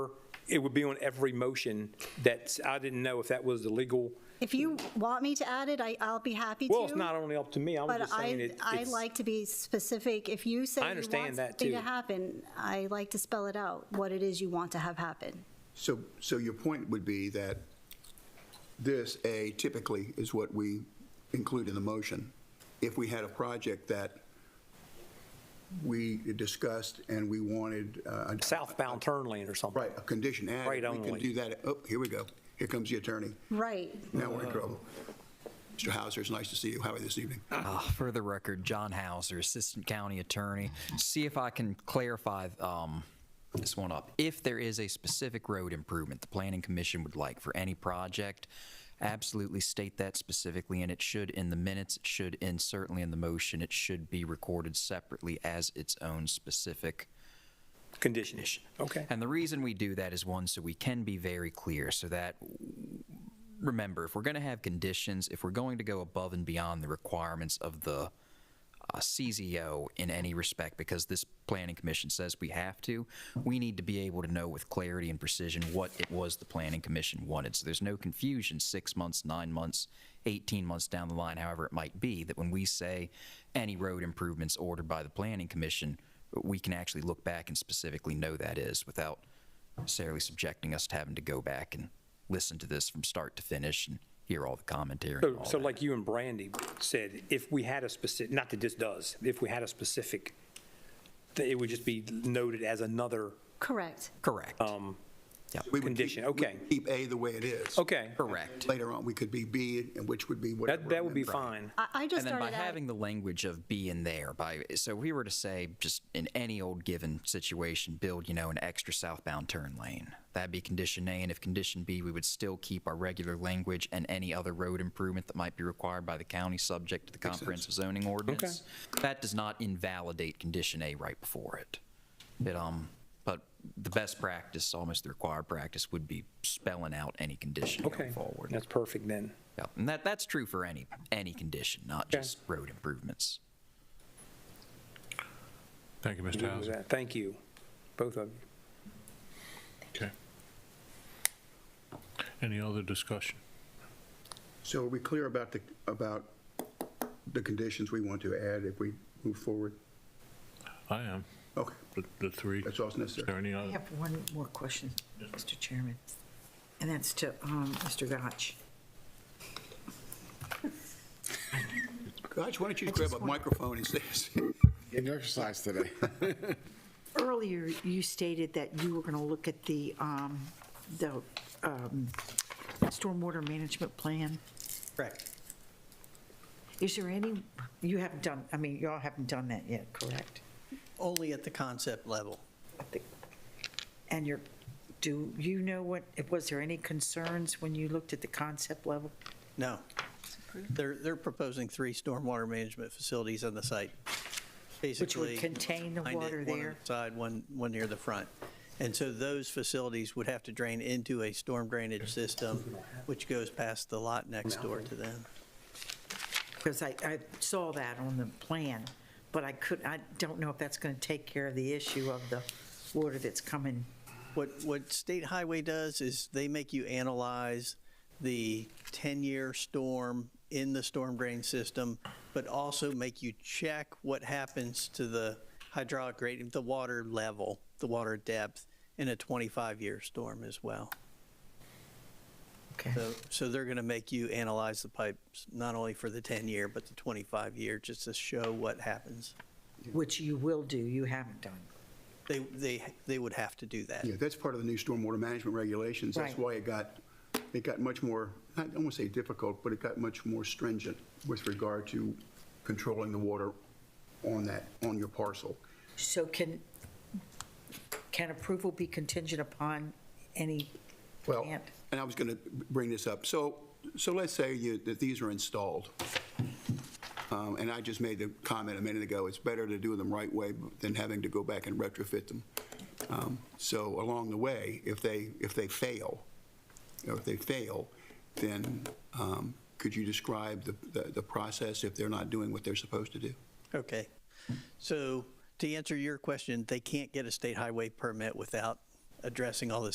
It would be on every motion that's, I didn't know if that was the legal, If you want me to add it, I, I'll be happy to. well, it's not only up to me, I was But just saying I, it- I it's, like to be specific. If you say I you want understand that, something to too. happen, I like to spell it out, what it is you want to have happen. So, so your point would be that this, A, typically is what we include in the motion. If we had a project that we discussed and we wanted, uh, southbound turn lane or something. right, a condition added. Right We can only. do that, oh, here we go, here comes the attorney, Right. now we're Uh-huh. in trouble. Mr. Hauser, it's nice to see you, how are you this evening? Uh, for the record, John Hauser, Assistant County Attorney. See if I can clarify um, this one up. If there is a specific road improvement the Planning Commission would like for any project, absolutely state that specifically, and it should in the minutes, it should in certainly in the motion, it should be recorded separately as its own specific Condition. Okay. and the reason we do that is one, so we can be very clear, so that remember, if we're going to have conditions, if we're going to go above and beyond the requirements of the uh, CZO in any respect, because this planning commission says we have to, we need to be able to know with clarity and precision what it was the planning commission wanted. So there's no confusion six months, nine months, 18 months down the line, however it might be, that when we say any road improvements ordered by the planning commission, we can actually look back and specifically know that is without necessarily subjecting us to having to go back and listen to this from start to finish and hear all the commentary. and So, all so that. like you and Brandy said, if we had a specific, not that this does, if we had a specific, that it would just be noted as another Correct. Correct. um, We would keep- condition, we would okay. Keep A the way it is. Okay, Correct. Later on, we could be B, and which would be whatever. that, that would be amendment. fine. I, I just And then by started out. having the language of be in there, by, so if we were to say, just in any old given situation, build, you know, an extra southbound turn lane, that'd be condition A, and if condition B, we would still keep our regular language and any other road improvement that might be required by the county subject to the comprehensive zoning ordinance. That does not invalidate condition A right before it. It, um, but the best practice, almost the required practice, would be spelling out any condition Okay, going forward. that's perfect then. Yep, and that, that's true for any, any condition, not Okay. just road improvements. Thank you, Mr. Good with Hauser. that. Thank you, both of you. Okay. Any other discussion? So are we clear about the, about the conditions we want to add if we move forward? I am, Okay, the, the three. that's all that's Is there necessary. any I other? have one more question, Mr. Chairman, and that's to um, Mr. Gotch. Gosh, why don't you I grab just a wanna- microphone and say, Getting exercise today. Earlier, you stated that you were going to look at the, um, the um, stormwater management plan. Correct. Is there any, you haven't done, I mean, y'all haven't done that yet, correct? Only at the concept level. I think- And you're, do you know what, was there any concerns when you looked at the concept level? No. They're, they're proposing three stormwater management facilities on the site. Basically, contain the behind it, water One on there? the side, one, one near the front. And so those facilities would have to drain into a storm drainage system, which goes past the lot next door to them. Because I, I saw that on the plan, but I could, I don't know if that's going to take care of the issue of the water that's coming. What, what state highway does is they make you analyze the 10-year storm in the storm drain system, but also make you check what happens to the hydraulic gradient, the water level, the water depth in a 25-year storm as well. Okay. So, so they're going to make you analyze the pipes, not only for the 10-year, but the 25-year, just to show what happens. Which you will do, you haven't done. They, they, they would have to do that. yeah, that's part of the new stormwater management regulations. That's Right. why it got, it got much more, I don't want to say difficult, but it got much more stringent with regard to controlling the water on that, on your parcel. So can, can approval be contingent upon any Well, plant? and I was going to bring this up. So, so let's say you, that these are installed. Um, And I just made the comment a minute ago, it's better to do them right way than having to go back and retrofit them. Um, So along the way, if they, if they fail, or if they fail, then um, could you describe the, the- the process if they're not doing what they're supposed to do? Okay. So to answer your question, they can't get a state highway permit without addressing all the